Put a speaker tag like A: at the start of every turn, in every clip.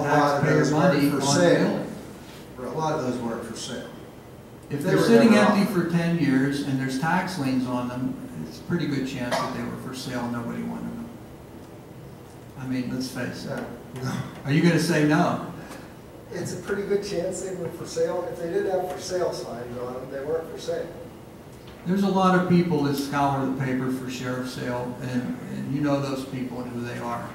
A: lot of
B: taxpayer
A: those weren't
B: money
A: for
B: on
A: sale.
B: building.
A: But a lot of those weren't for sale.
B: If
A: They
B: they're
A: were
B: sitting
A: never
B: empty
A: on.
B: for ten years and there's tax liens on them, it's a pretty good chance that they were for sale, and nobody wanted them. I mean, let's face it.
A: So, no.
B: Are you gonna say no?
C: It's a pretty good chance they were for sale. If they did have for sale signs on them, they weren't for sale.
B: There's a lot of people that scour the paper for sheriff's sale, and, and you know those people and who they are.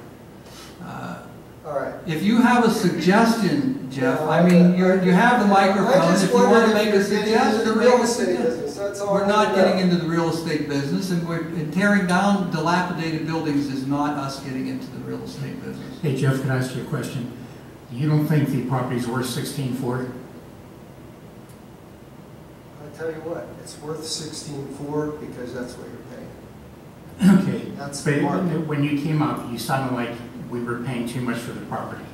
B: Uh,
C: All right.
B: If you have a suggestion, Jeff, I mean, you're, you have the microphone, if you wanna make a
C: The
B: suggestion, make
C: real
B: a
C: estate
B: suggestion.
C: business, that's all. I
B: We're not
C: wanna know.
B: getting into the real estate business, and we're, and tearing down dilapidated buildings is not us getting into the real estate business.
D: Hey, Jeff, can I ask you a question? You don't think the property's worth sixteen four?
C: I tell you what,
A: It's worth sixteen-four because that's what you're paying.
D: Okay.
A: That's
D: But
A: the market.
D: When you came up, you sounded like we were paying too much for the property.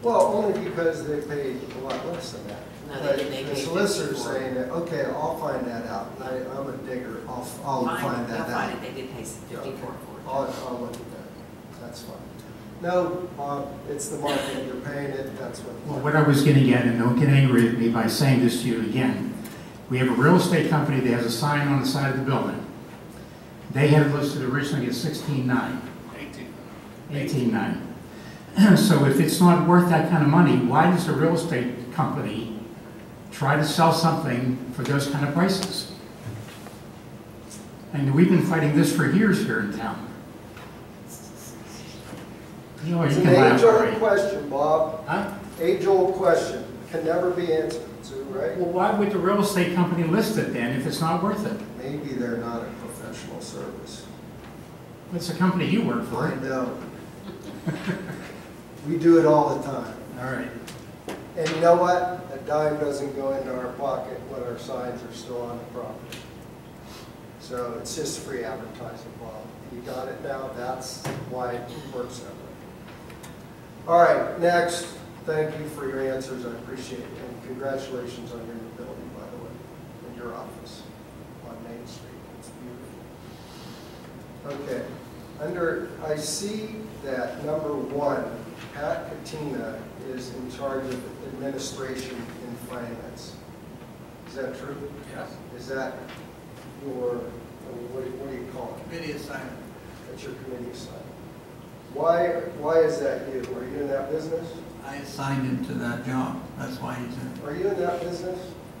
C: well, only because they paid a lot less than that.
E: No, they didn't. They
C: But
E: paid
C: The solicitor's
E: 54.
C: saying that, okay, I'll find that out. I, I'm a digger.
A: I'll, I'll find that
E: I'll
A: out.
E: find it, they did pay fifty-four for it.
C: I'll, I'll look at that. That's fine. No, Bob, it's the market. You're paying it. That's
D: Well,
C: what.
D: what I was getting at, and don't get angry at me by saying this to you again, we have a real estate company that has a sign on the side of the building. They had it listed originally at sixteen nine. Eighteen. Eighteen nine. So if it's not worth that kind of money, why does a real estate company try to sell something for those kind of prices? And we've been fighting this for years here in town. You know,
C: It's
D: you
C: an
D: can laugh, all
C: age-old
D: right?
C: question, Bob.
D: Huh?
C: Age-old question, can never be answered, Sue, right?
D: Well, why would the real estate company list it then if it's not worth it?
A: Maybe they're not a professional service.
D: It's a company you work for.
A: I
D: All
A: know. We do it all the time.
D: right.
C: And you know what? A dime doesn't go into our pocket when our signs are still on the property. So it's just free advertising, Bob. You got it now, that's why it works that way. All right, next, thank you for your answers, I appreciate it, and congratulations on your new building, by the way, and your office on Main Street, it's beautiful. Okay, under, I see that number one, Pat Katina is in charge of administration and finance. Is that true?
B: Yes.
C: Is that your, I mean, what do you- what do you call it?
B: Committee assignment.
C: That's your committee assignment. Why, why is that you? Are you in that business?
B: I assigned him to that job, that's why he's in.
C: Are you in that business?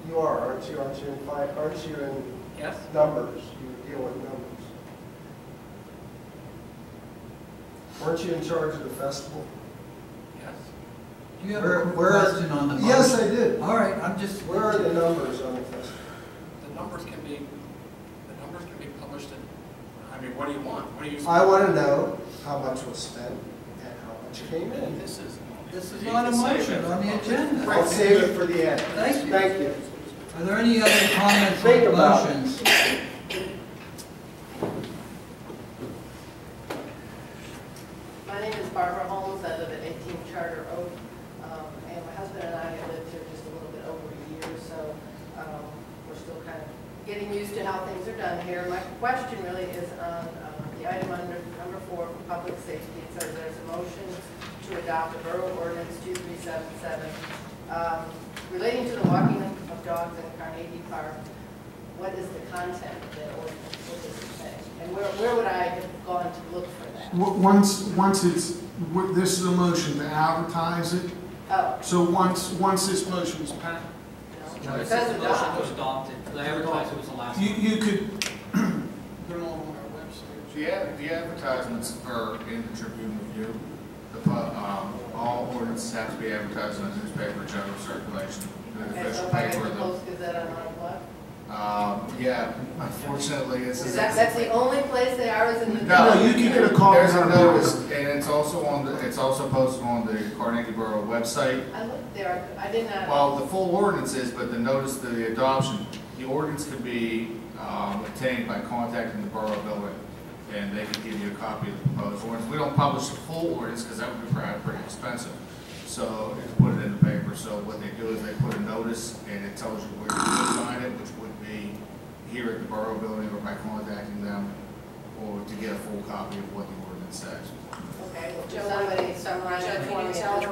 C: You are, aren't you? Aren't you in, fi- aren't you in
E: Yes.
C: numbers? You deal with numbers. Weren't you in charge of the festival?
B: Do you have
C: Where-
B: a
C: where-
B: question on the motion?
C: Yes, I did.
B: All right, I'm just.
C: Where are the numbers on the festival?
F: The numbers can be, the numbers can be published in, I mean, what do you want? What do you?
C: I want to know how much was spent and how much came in.
F: This is.
B: This is not a motion on the agenda.
C: I'll save it for the end.
B: Thank you.
C: Thank you.
B: Are there any other comments
C: Think
B: or
C: about it.
B: motions?
G: My name is Barbara Holmes, I live at 18 Charter Oak, um, and my husband and I have lived here just a little bit over a year, so um, we're still kind of getting used to how things are done here. My question really is on um, the item under number four, for public safety, it says there's a motion to adopt a borough ordinance 2377 um, relating to the walking of dogs in Carnegie Park. What is the content of that ordinance, what does it say? And where where would I have gone to look for that?
H: W- Once, once it's, w- this is a motion to advertise it,
G: Oh,
H: so once, once this motion is passed,
G: No, it says adopt.
F: adopted, the advertisement was the last.
H: you, you could put it on our website.
I: The ad- the advertisements are in the Tribune Review. The, pu- um, all ordinances have to be advertised in the newspaper, general circulation, in the
G: Okay, so
I: official
G: if I have
I: paper.
G: to
I: the-
G: post Gazette on our blog?
I: Um, yeah, unfortunately, it's.
G: Is that, that's the only place they are is in the.
I: No,
H: you can get a call.
I: There's a notice, and it's also on the, it's also posted on the Carnegie Borough website.
G: I looked there, I did not.
I: Well, the full ordinance is, but the notice to the adoption, the ordinance could be, um, obtained by contacting the Borough Building, and they could give you a copy of the proposed ordinance. We don't publish the full ordinance, because that would be probably pretty expensive, so it's put it in the paper, so what they do is they put a notice, and it tells you where you can find it, which would be here at the Borough Building, or by contacting them, or to get a full copy of what the ordinance says.
G: Okay, well, somebody summarize it for me.